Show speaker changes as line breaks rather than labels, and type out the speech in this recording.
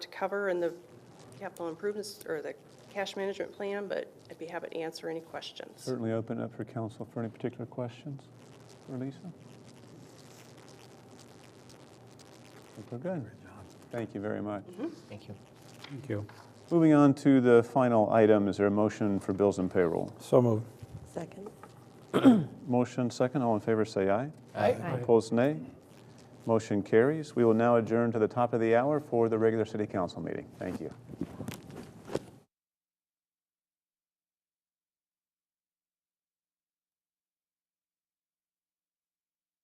to cover in the capital improvements or the cash management plan, but I'd be happy to answer any questions.
Certainly open up for council for any particular questions for Lisa. I think we're good. Thank you very much.
Thank you.
Thank you.
Moving on to the final item, is there a motion for bills and payroll?
So moved.
Second.
Motion second, all in favor say aye.
Aye.
Opposed nay. Motion carries. We will now adjourn to the top of the hour for the regular city council meeting. Thank you.